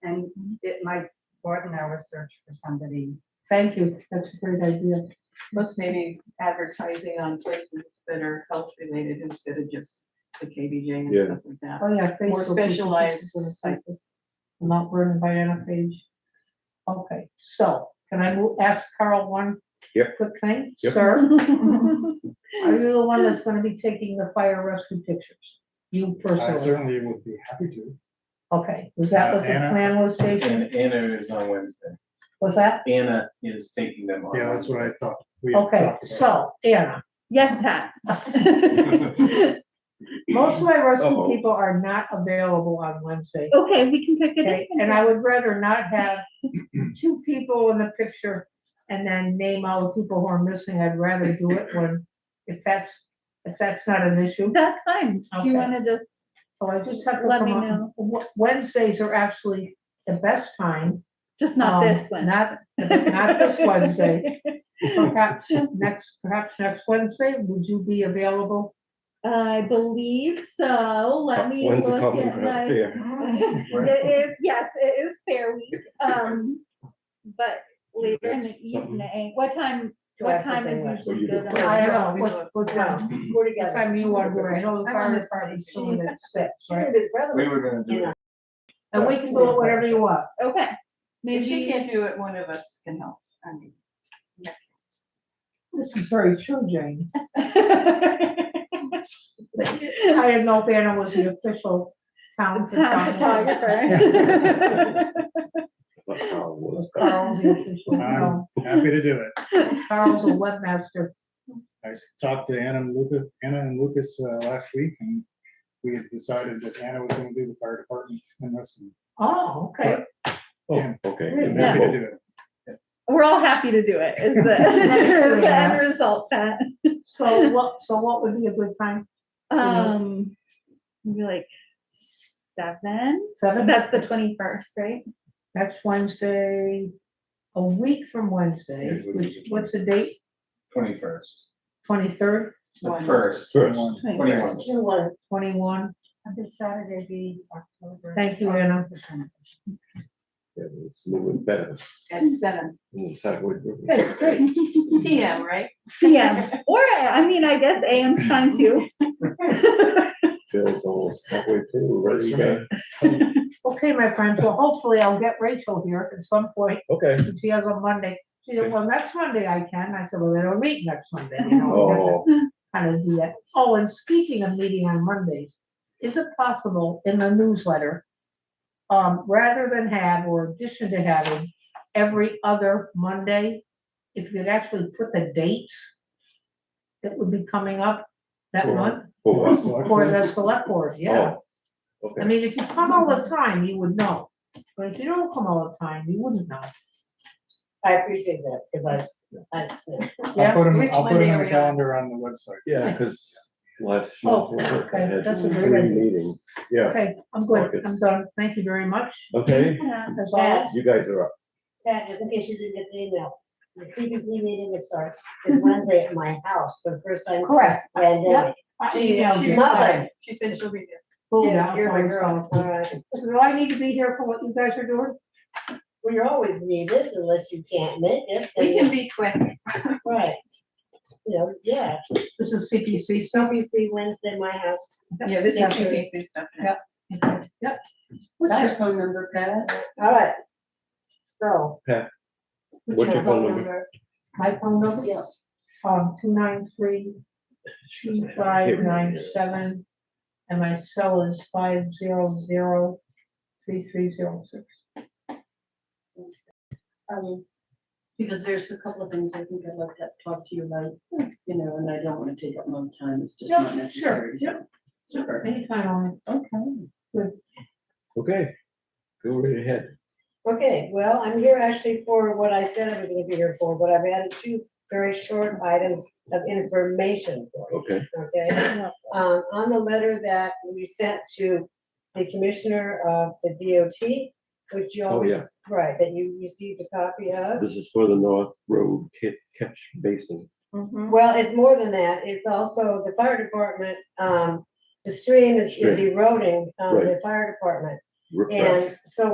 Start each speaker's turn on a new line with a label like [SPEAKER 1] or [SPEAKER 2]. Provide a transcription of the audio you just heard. [SPEAKER 1] it might broaden our search for somebody.
[SPEAKER 2] Thank you, that's a great idea.
[SPEAKER 3] Plus maybe advertising on places that are health related instead of just the KBJ and
[SPEAKER 4] Yeah.
[SPEAKER 3] stuff like that.
[SPEAKER 2] Oh, yeah.
[SPEAKER 3] More
[SPEAKER 2] Facebook, we should keep
[SPEAKER 3] specialized
[SPEAKER 2] it on the site.
[SPEAKER 3] sites.
[SPEAKER 2] I'm Not burdened by any page. Okay, so can I move, ask Carl one?
[SPEAKER 4] Yep.
[SPEAKER 2] Quick thing,
[SPEAKER 4] Yep.
[SPEAKER 2] sir? Are you the one that's gonna be taking the fire rescue pictures? You
[SPEAKER 5] I
[SPEAKER 2] personally?
[SPEAKER 5] certainly would be happy to.
[SPEAKER 2] Okay, was that what the
[SPEAKER 5] Anna?
[SPEAKER 2] plan was, Jason?
[SPEAKER 6] And Anna is on Wednesday.
[SPEAKER 2] Was that?
[SPEAKER 6] Anna is taking them on.
[SPEAKER 5] Yeah, that's what I thought. We had
[SPEAKER 2] Okay,
[SPEAKER 5] talked about it.
[SPEAKER 2] so Anna,
[SPEAKER 7] Yes, Pat.
[SPEAKER 2] most of my rescue
[SPEAKER 6] Uh-oh.
[SPEAKER 2] people are not available on Wednesday.
[SPEAKER 7] Okay, we can pick it up.
[SPEAKER 2] Okay, and I would rather not have two people in the picture and then name all the people who are missing. I'd rather do it when, if that's, if that's not an issue.
[SPEAKER 7] That's fine. Do you
[SPEAKER 2] Okay.
[SPEAKER 7] wanna just,
[SPEAKER 2] So I just have to
[SPEAKER 7] Let
[SPEAKER 2] come
[SPEAKER 7] me
[SPEAKER 2] up-
[SPEAKER 7] know.
[SPEAKER 2] Wed- Wednesdays are actually the best time.
[SPEAKER 7] just not
[SPEAKER 2] um,
[SPEAKER 7] this one?
[SPEAKER 2] Not, not this Wednesday. Perhaps next, perhaps next Wednesday, would you be available?
[SPEAKER 7] I believe so. Let me
[SPEAKER 4] When's the
[SPEAKER 7] look
[SPEAKER 4] company
[SPEAKER 7] at my.
[SPEAKER 4] fair?
[SPEAKER 7] It is, yes, it is fair week, um, but later in the
[SPEAKER 4] Something.
[SPEAKER 7] evening, what time,
[SPEAKER 2] to
[SPEAKER 7] what
[SPEAKER 2] ask if
[SPEAKER 7] time
[SPEAKER 2] they
[SPEAKER 7] is
[SPEAKER 2] want?
[SPEAKER 4] What do
[SPEAKER 7] usually
[SPEAKER 4] you
[SPEAKER 7] good?
[SPEAKER 4] do?
[SPEAKER 2] I
[SPEAKER 7] on-
[SPEAKER 2] don't know, what, what time,
[SPEAKER 1] We're
[SPEAKER 2] what time you want to do it? I know the
[SPEAKER 1] I'm on
[SPEAKER 2] fire
[SPEAKER 1] this party.
[SPEAKER 2] department's doing it at six, right?
[SPEAKER 6] We were gonna do it.
[SPEAKER 2] And we can go whatever you want.
[SPEAKER 7] Okay,
[SPEAKER 3] If she
[SPEAKER 7] maybe,
[SPEAKER 3] can't do it, one of us can help. I mean,
[SPEAKER 2] This is very true, Jane.
[SPEAKER 7] The
[SPEAKER 2] I didn't know if Anna was the official town
[SPEAKER 7] town
[SPEAKER 2] photographer.
[SPEAKER 7] photographer.
[SPEAKER 4] That's how it was.
[SPEAKER 2] Was Carl the official? No,
[SPEAKER 5] Happy to do it.
[SPEAKER 2] Carl's a webmaster.
[SPEAKER 5] I s- talked to Anna and Lucas, Anna and Lucas uh, last week and we had decided that Anna was gonna do the fire department and rescue.
[SPEAKER 2] Oh, okay.
[SPEAKER 4] Oh, okay.
[SPEAKER 5] I'm happy to do it.
[SPEAKER 7] We're all happy to do it, is the, is the end result, Pat.
[SPEAKER 2] So what, so what would be a good time?
[SPEAKER 7] Um, maybe like seven,
[SPEAKER 2] Seven?
[SPEAKER 7] that's the twenty-first, right?
[SPEAKER 2] Next Wednesday, a week from Wednesday,
[SPEAKER 6] Yes, we
[SPEAKER 2] which,
[SPEAKER 6] can.
[SPEAKER 2] what's the date?
[SPEAKER 6] Twenty-first,
[SPEAKER 2] Twenty-third,
[SPEAKER 6] the
[SPEAKER 3] one-
[SPEAKER 6] first,
[SPEAKER 4] First,
[SPEAKER 5] One.
[SPEAKER 6] twenty-one.
[SPEAKER 2] twenty-one?
[SPEAKER 1] This Saturday be October.
[SPEAKER 2] Thank you, Anna.
[SPEAKER 4] yeah, it's moving fast.
[SPEAKER 3] At seven
[SPEAKER 4] It's halfway through.
[SPEAKER 2] Okay, great.
[SPEAKER 3] PM, right?
[SPEAKER 7] Yeah, or, I mean, I guess AM's fine too.
[SPEAKER 4] Bill's almost halfway through,
[SPEAKER 5] Works
[SPEAKER 4] ready
[SPEAKER 5] for
[SPEAKER 4] to
[SPEAKER 5] me.
[SPEAKER 4] go.
[SPEAKER 2] Okay, my friend, so hopefully I'll get Rachel here at some point.
[SPEAKER 4] Okay.
[SPEAKER 2] And she has on Monday. She said, well, next Monday I can. I said, well, they don't meet next Monday, you know,
[SPEAKER 4] Oh,
[SPEAKER 2] kind of do that. Oh, and speaking of meeting on Mondays, is it possible in the newsletter, um, rather than have or addition to having every other Monday, if you'd actually put the dates that would be coming up that
[SPEAKER 4] Cool.
[SPEAKER 2] month
[SPEAKER 4] for what?
[SPEAKER 2] for the select board, yeah.
[SPEAKER 4] Oh,
[SPEAKER 2] I
[SPEAKER 4] Okay,
[SPEAKER 2] mean, if you come all the time, you would know, but if you don't come all the time, you wouldn't know.
[SPEAKER 8] I appreciate that, because I, I, yeah.
[SPEAKER 2] Yeah.
[SPEAKER 5] I'll put 'em-
[SPEAKER 3] Which
[SPEAKER 5] I'll put
[SPEAKER 3] Monday are
[SPEAKER 5] them on
[SPEAKER 3] we
[SPEAKER 5] the
[SPEAKER 3] on?
[SPEAKER 5] calendar on the website.
[SPEAKER 4] yeah, because last
[SPEAKER 2] Oh,
[SPEAKER 4] month I
[SPEAKER 2] okay,
[SPEAKER 4] had
[SPEAKER 2] that's a great
[SPEAKER 4] three
[SPEAKER 2] idea.
[SPEAKER 4] meetings. Yeah,
[SPEAKER 2] Okay, I'm good, I'm
[SPEAKER 4] Focus.
[SPEAKER 2] done, thank you very much,
[SPEAKER 4] okay,
[SPEAKER 7] Yeah.
[SPEAKER 2] as always.
[SPEAKER 4] you guys are up.
[SPEAKER 8] Pat, just in case you didn't get the email, the CPC meeting, I'm sorry, is Wednesday at my house, for the first time.
[SPEAKER 2] Correct.
[SPEAKER 8] And
[SPEAKER 2] I
[SPEAKER 3] She, she
[SPEAKER 2] emailed you.
[SPEAKER 3] replied. she said she'll be there.
[SPEAKER 2] Cool
[SPEAKER 8] Yeah,
[SPEAKER 2] down,
[SPEAKER 8] you're my
[SPEAKER 2] fine,
[SPEAKER 8] girl.
[SPEAKER 2] so- So do I need to be here for what you guys are doing?
[SPEAKER 8] well, you're always needed unless you can't make it.
[SPEAKER 3] We
[SPEAKER 8] then-
[SPEAKER 3] can be quick.
[SPEAKER 8] Right. You know, yeah,
[SPEAKER 2] This is CPC, so.
[SPEAKER 8] CPC Wednesday, my house.
[SPEAKER 3] Yeah, this
[SPEAKER 2] Yeah.
[SPEAKER 3] is two pieces stuff.
[SPEAKER 2] Yeah. Yep. What's your phone number, Pat?
[SPEAKER 8] All right. So.
[SPEAKER 4] What's your phone number?
[SPEAKER 2] My phone number?
[SPEAKER 8] Yeah.
[SPEAKER 2] Um, two nine three, two five nine seven, and my cell is five zero zero three three zero six.
[SPEAKER 8] Um, because there's a couple of things I think I'd like to talk to you about, you know, and I don't want to take up long time, it's just
[SPEAKER 2] Yeah,
[SPEAKER 8] not
[SPEAKER 2] sure,
[SPEAKER 8] necessary.
[SPEAKER 2] yeah.
[SPEAKER 8] Sure.
[SPEAKER 2] Anytime on,
[SPEAKER 8] Okay.
[SPEAKER 4] Okay, go right ahead.
[SPEAKER 8] Okay, well, I'm here actually for what I said I was gonna be here for, but I've added two very short items of information for you,
[SPEAKER 4] Okay,
[SPEAKER 8] okay? Um, on the letter that we sent to the commissioner of the DOT, which you
[SPEAKER 4] Oh, yeah.
[SPEAKER 8] always, right, that you received a copy
[SPEAKER 2] Uh,
[SPEAKER 8] of.
[SPEAKER 4] this is for the North Road Ca- Catch Basin.
[SPEAKER 2] Mm-hmm.
[SPEAKER 8] Well, it's more than that, it's also the fire department, um, the stream is is
[SPEAKER 4] Stream.
[SPEAKER 8] eroding, um,
[SPEAKER 4] Right.
[SPEAKER 8] the fire department.
[SPEAKER 4] Riprap.
[SPEAKER 8] And so